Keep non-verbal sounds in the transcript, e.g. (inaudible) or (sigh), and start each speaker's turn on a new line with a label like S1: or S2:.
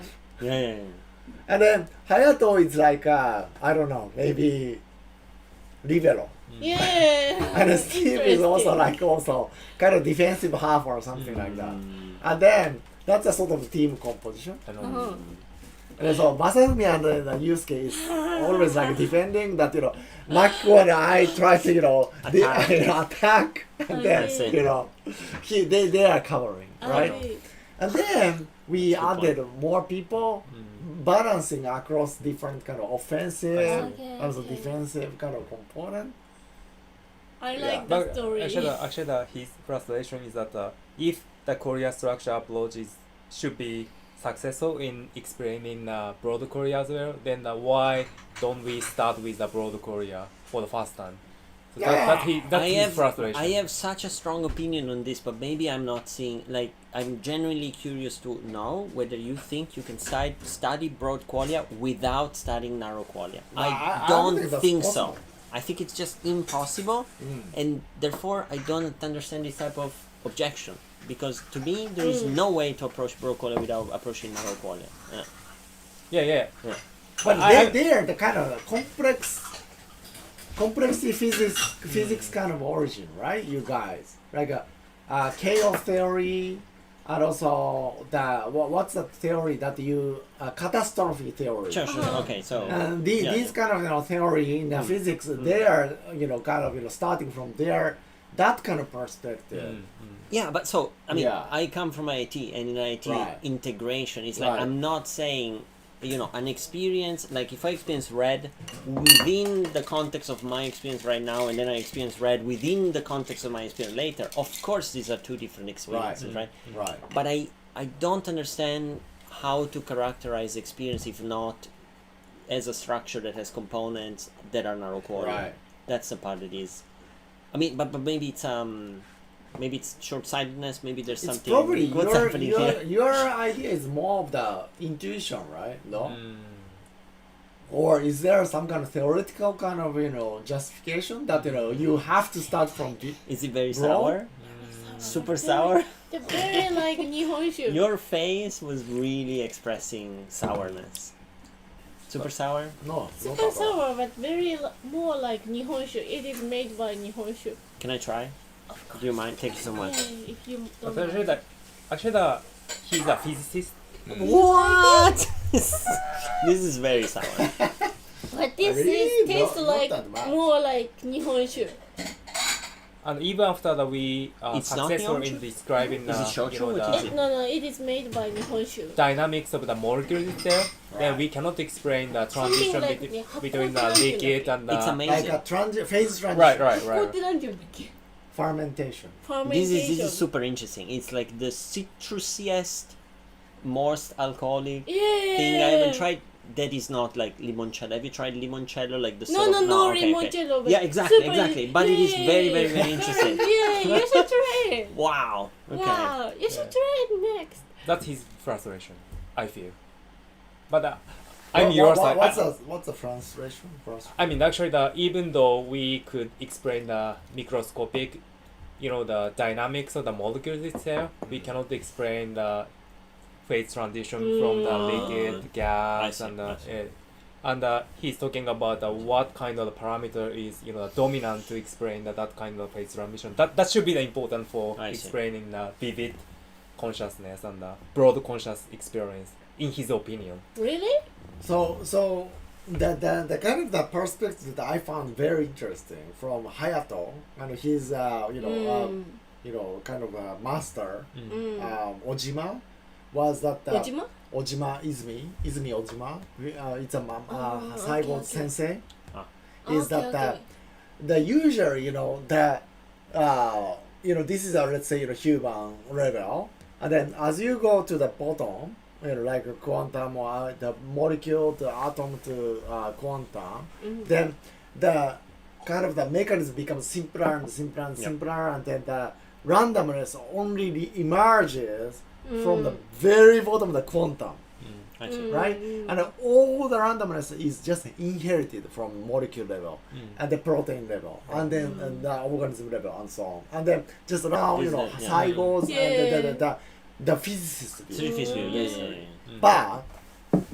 S1: Yeah, yeah, yeah.
S2: And then Hayato is like uh, I don't know, maybe
S1: (laughs)
S2: libero.
S3: Yeah.
S2: And Steve is also
S3: Interesting.
S2: like also kind of defensive half or something like that.
S1: Mm.
S2: And then that's a sort of team composition.
S1: I don't
S3: Uh-huh.
S2: And so Masafumi and uh, the Yusuke is always
S1: (laughs)
S2: like defending that you know Makiko and I try to you
S1: (laughs)
S2: know the,
S1: Attack.
S2: you know, (laughs)
S1: (laughs)
S2: attack and then
S3: Okay.
S2: you know he, they they are covering right.
S3: I-
S2: And then we
S1: Good point.
S2: added more people
S1: Mm.
S2: balancing across different kind of offensive
S1: I
S3: see.
S2: as a
S3: Okay, okay.
S2: defensive kind of component.
S3: I
S2: Yeah.
S3: like the
S1: But
S3: story.
S1: actually, the- actually, the, his frustration is that uh, if the Korea structure approach is should be successful in explaining uh, broad Korea as well, then uh, why don't we start with the broad Korea for the first time? So that, that he, that's
S4: I
S1: his
S4: have
S1: frustration.
S4: I have such a strong opinion on this, but maybe I'm not seeing. Like, I'm genuinely curious to know whether you think you can side, study broad qualia without studying narrow qualia.
S2: No, I-
S4: I,
S2: I don't
S4: don't
S2: think that's
S4: think
S2: possible. Mm.
S4: so. I think it's just impossible, and therefore I don't understand this type of objection because to me there is
S3: Mm.
S4: no way to approach broad qualia without approaching narrow qualia. Yeah.
S1: yeah, yeah.
S2: But
S1: I-
S2: they
S1: I-
S2: they are the kind of complex complexity physics physics kind of origin, right? You guys like a, uh chaos theory, and also the what, what's the theory that you uh, catastrophe theory.
S4: Sure, sure.
S3: Uh-huh.
S4: Okay, so
S2: And the,
S4: yeah,
S2: these
S4: yeah. Mm.
S2: kind of you know theory in the physics, they are you know kind of you know starting from their that kind of perspective.
S1: Mm, mm.
S4: Yeah, but so I mean,
S2: Yeah.
S4: I come from IT, and in IT
S2: Right.
S4: integration, it's like
S2: Right.
S4: I'm not saying, you know, an experience like if I experience red within the context of my experience right now, and then I experience red within the context of my experience later. Of course, these are two different experiences, right?
S2: Right.
S4: But I I don't understand how to characterize experience if not as a structure that has components that are narrow quadrant.
S2: Right.
S4: That's the part that is. I mean, but, but maybe it's um, maybe it's short-sightedness. Maybe there's
S2: It's
S4: something.
S2: probably
S4: what's
S2: your,
S4: happening
S2: your,
S4: here?
S2: your idea is more of the intuition, right? No?
S1: Mm.
S2: Or is there some kind of theoretical kind of, you know, justification that, you know, you have to start from the...
S4: Is it very
S2: Bro? Uh-huh.
S4: sour? Super sour.
S3: The very like Nihonshu.
S4: Your face was really expressing sourness. Super sour.
S2: No, not
S3: Super
S2: at all.
S3: sour, but very li- more like Nihonshu. It is made by Nihonshu.
S4: Can I try? Do you mind? Thank you so much.
S3: Yeah, if you
S1: But
S3: don't
S1: actually,
S3: mind.
S1: the, actually the, he's a physicist.
S4: What? (laughs) this is very sour.
S3: But this
S2: Really?
S3: is
S2: Not-
S3: tastes
S2: not
S3: like
S2: that much.
S3: more like Nihonshu.
S1: And even after that, we are
S4: It's not
S1: successful in
S4: Nihonshu?
S1: describing
S4: Is it
S1: uh,
S4: shochu?
S1: you know,
S4: What
S1: the,
S4: is it?
S3: It, no, no, it is made by Nihonshu.
S1: dynamics of the molecule itself, then
S2: Right.
S1: we cannot explain the
S3: Something
S1: transition
S3: like
S1: between,
S3: the
S1: between the
S3: haplotype,
S1: liquid and the.
S4: It's
S2: Like
S4: amazing.
S2: a transi- phase transition.
S1: Right, right, right. right.
S3: Fermentation.
S2: Fermentation.
S4: This is this is super interesting. It's like the citrusiest, most alcoholic
S3: yeah.
S4: thing I haven't tried. That is not like limoncello. Have you tried limoncello? Like the
S3: No,
S4: sort
S3: no,
S4: of,
S3: no,
S4: okay, okay.
S3: limoncello, but
S4: Yeah, exactly,
S3: super-
S4: exactly. But it is very, very,
S3: yeah.
S4: very interesting.
S3: (laughs) yeah, you should try it.
S4: Wow. Okay.
S3: Wow, you should try it next.
S1: That's his frustration, I feel. But uh, I'm your
S2: what, What,
S1: side.
S2: what's,
S1: I,
S2: the, what's the translation? Trans-
S1: I mean, actually, the, even though we could explain the microscopic, you know, the dynamics of the molecules itself, we cannot explain the phase transition from the
S4: Mm.
S1: liquid,
S4: I
S1: gas,
S4: see,
S1: and
S4: I
S1: the.
S4: see.
S1: eh, and uh, he's talking about uh, what kind of parameter is you know dominant to explain that, that kind of phase transition. That that should be the important for
S4: I see.
S1: explaining the vivid consciousness and the broad conscious experience, in his opinion.
S3: Really?
S1: Mm.
S2: So, so the, the, the kind of the perspective that I found very interesting from Hayato, and he's, uh, you know, um, you know, kind of a master,
S3: Mm.
S2: um, Ojima, was that uh,
S3: Ojima?
S2: Ojima Izumi, Izumi Ojima, we- uh, it's a mom, uh,
S3: Oh, okay,
S2: Saigo
S3: okay.
S2: sensei,
S4: Ah.
S2: is
S3: Okay,
S2: that the,
S3: okay.
S2: the usual, you know, the, uh, you know, this is a, let's say, you know, human level, and then as you go to the bottom, you know, like a quantum or uh, the molecule to atom to uh, quantum, then the kind of the mechanism becomes simpler and simpler and
S4: Yeah.
S2: simpler, and then the randomness only re- emerges from the very bottom of the quantum
S4: I
S3: Mm.
S4: see.
S2: right? And all the randomness is just inherited from molecule level and the protein level and then and the organism level and so on. And then just now, you
S4: Isn't
S2: know,
S4: it? Yeah.
S2: cycles and the, the,
S3: Yeah.
S2: the, the, the physicist.
S4: Three
S2: view.
S1: Mm-hmm.
S4: fish meal, yes, yeah, yeah, yeah.
S2: But